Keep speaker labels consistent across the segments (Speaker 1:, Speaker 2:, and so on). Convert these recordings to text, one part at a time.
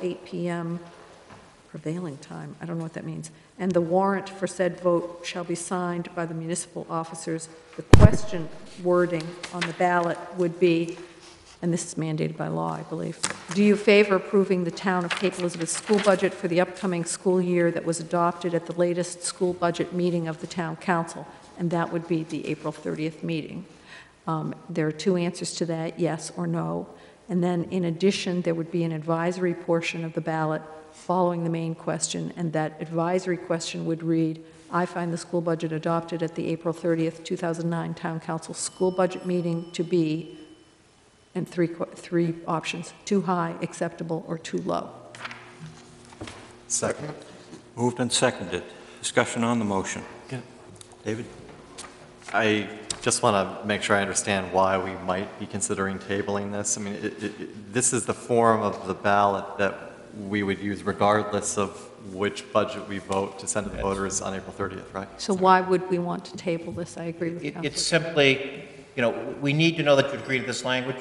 Speaker 1: 8 PM prevailing time, I don't know what that means, and the warrant for said vote shall be signed by the municipal officers. The question wording on the ballot would be, and this is mandated by law, I believe, do you favor approving the town of Cape Elizabeth school budget for the upcoming school year that was adopted at the latest school budget meeting of the town council? And that would be the April 30th meeting. Um, There are two answers to that, yes or no. And then, in addition, there would be an advisory portion of the ballot following the main question, and that advisory question would read, I find the school budget adopted at the April 30th, 2009 Town Council School Budget Meeting to be, and three, que- three options, too high, acceptable, or too low.
Speaker 2: Second.
Speaker 3: Moved and seconded. Discussion on the motion. David?
Speaker 2: I just want to make sure I understand why we might be considering tabling this. I mean, it- it- it- this is the form of the ballot that we would use regardless of which budget we vote to send to the voters on April 30th, right?
Speaker 1: So why would we want to table this? I agree with
Speaker 4: It-
Speaker 1: Counselor.
Speaker 4: It's simply, you know, we need to know that you agree to this language,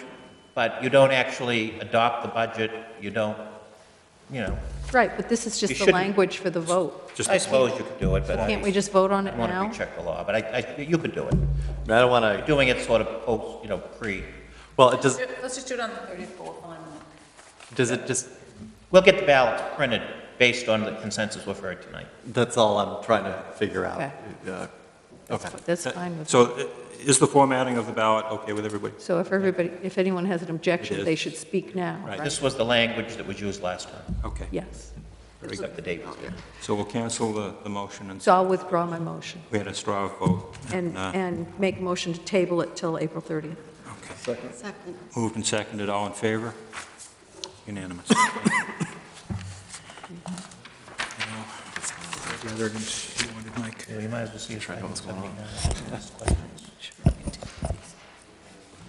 Speaker 4: but you don't actually adopt the budget, you don't, you know,
Speaker 1: Right, but this is
Speaker 4: You
Speaker 1: just the
Speaker 4: shouldn't-
Speaker 1: language for the vote.
Speaker 4: I suppose you could do it, but I...
Speaker 1: Can't we just vote on
Speaker 4: I
Speaker 1: it
Speaker 4: want to
Speaker 1: now?
Speaker 4: recheck the law, but I, I, you could do it.
Speaker 2: I mean, I don't want to,
Speaker 4: Doing it sort of post, you know, pre,
Speaker 2: well, it does,
Speaker 5: Let's just do it on the 30th for one minute.
Speaker 2: does it just,
Speaker 4: we'll get the ballots printed based on the consensus we've heard tonight.
Speaker 2: that's all I'm trying to figure out. Uh, Okay.
Speaker 4: Uh,
Speaker 1: That's fine with me.
Speaker 3: So i- is the formatting of the ballot okay with everybody?
Speaker 1: So if everybody, if anyone has an objection,
Speaker 3: is.
Speaker 1: they should speak now,
Speaker 3: Right.
Speaker 1: right?
Speaker 4: This was the language that was used last time,
Speaker 3: Okay.
Speaker 1: Yes.
Speaker 4: except the date was different.
Speaker 3: So we'll cancel the, the motion and
Speaker 1: So I'll withdraw my motion
Speaker 3: we had a straw vote.
Speaker 1: and,
Speaker 3: Uh,
Speaker 1: and make a motion to table it till April 30th.
Speaker 3: okay.
Speaker 5: Second.
Speaker 3: Moved and seconded. All in favor? Unanimous.
Speaker 6: gathered and she wanted Mike.
Speaker 4: You might as well see if I can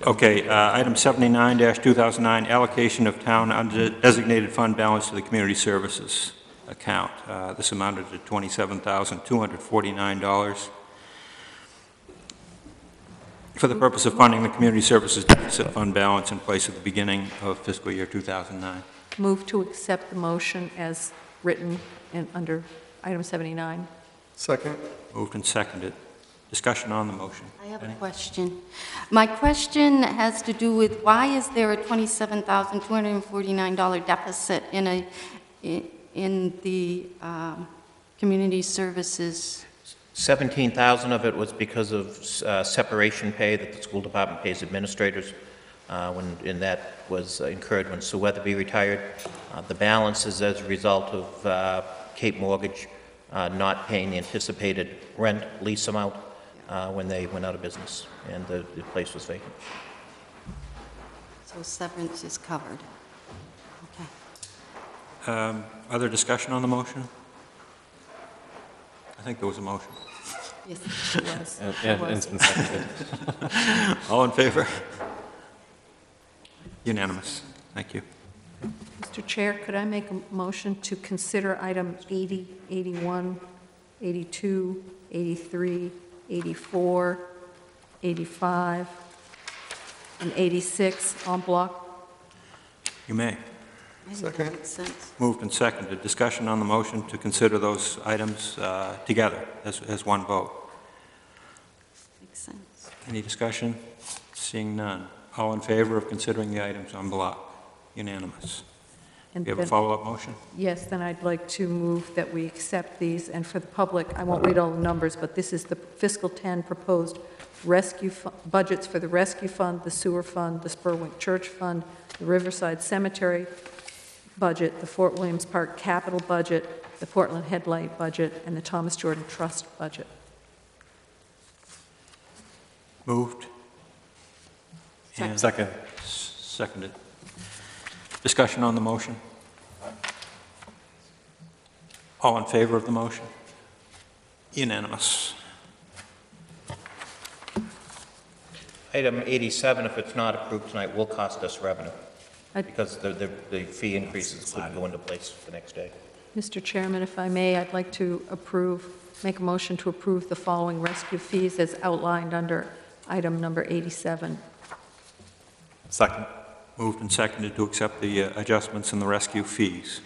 Speaker 3: Okay, uh, item 79-2009, allocation of town undesignated fund balance to the community services account. Uh, This amounted to $27,249 for the purpose of funding the community services deficit fund balance in place at the beginning of fiscal year 2009.
Speaker 1: Move to accept the motion as written and under item 79.
Speaker 7: Second.
Speaker 3: Moved and seconded. Discussion on the motion.
Speaker 5: I have a question. My question has to do with why is there a $27,249 deficit in a, i- in the um, community services?
Speaker 4: 17,000 of it was because of uh, separation pay that the school department pays administrators, uh, when, and that was uh, incurred when Sue Weatherby retired. Uh, The balance is as a result of uh, Cape Mortgage uh, not paying the anticipated rent lease amount uh, when they went out of business, and the the place was vacant.
Speaker 5: So severance is covered. Okay.
Speaker 3: Um, Other discussion on the motion? I think there was a motion.
Speaker 5: Yes.
Speaker 1: Yes,
Speaker 3: Uh.
Speaker 2: And-
Speaker 1: it
Speaker 2: and
Speaker 1: was.
Speaker 2: it's been seconded.
Speaker 3: All in favor? Unanimous. Thank you.
Speaker 1: Mr. Chair, could I make a motion to consider item 80, 81, 82, 83, 84, 85, and 86 on block?
Speaker 3: You may.
Speaker 5: I think that makes sense.
Speaker 3: Moved and seconded. Discussion on the motion to consider those items uh, together as as one vote.
Speaker 5: Makes sense.
Speaker 3: Any discussion? Seeing none. All in favor of considering the items on block? Unanimous.
Speaker 1: and
Speaker 3: Do you have a
Speaker 1: then-
Speaker 3: follow-up motion?
Speaker 1: Yes, then I'd like to move that we accept these, and for the public, I won't read all the numbers, but this is the fiscal 10 proposed rescue, fu- budgets for the Rescue Fund, the Sewer Fund, the Spurwink Church Fund, the Riverside Cemetery budget, the Fort Williams Park capital budget, the Portland Headlight budget, and the Thomas Jordan Trust budget.
Speaker 3: Moved? And
Speaker 2: Second.
Speaker 3: s- Seconded. Discussion on the motion? All in favor of the motion? Unanimous.
Speaker 4: Item 87, if it's not approved tonight, will cost us revenue,
Speaker 1: I-
Speaker 4: because the, the- the fee increases could go into place the next day.
Speaker 1: Mr. Chairman, if I may, I'd like to approve, make a motion to approve the following rescue fees as outlined under item number 87.
Speaker 2: Second.
Speaker 3: Moved and seconded to accept the uh, adjustments in the rescue fees.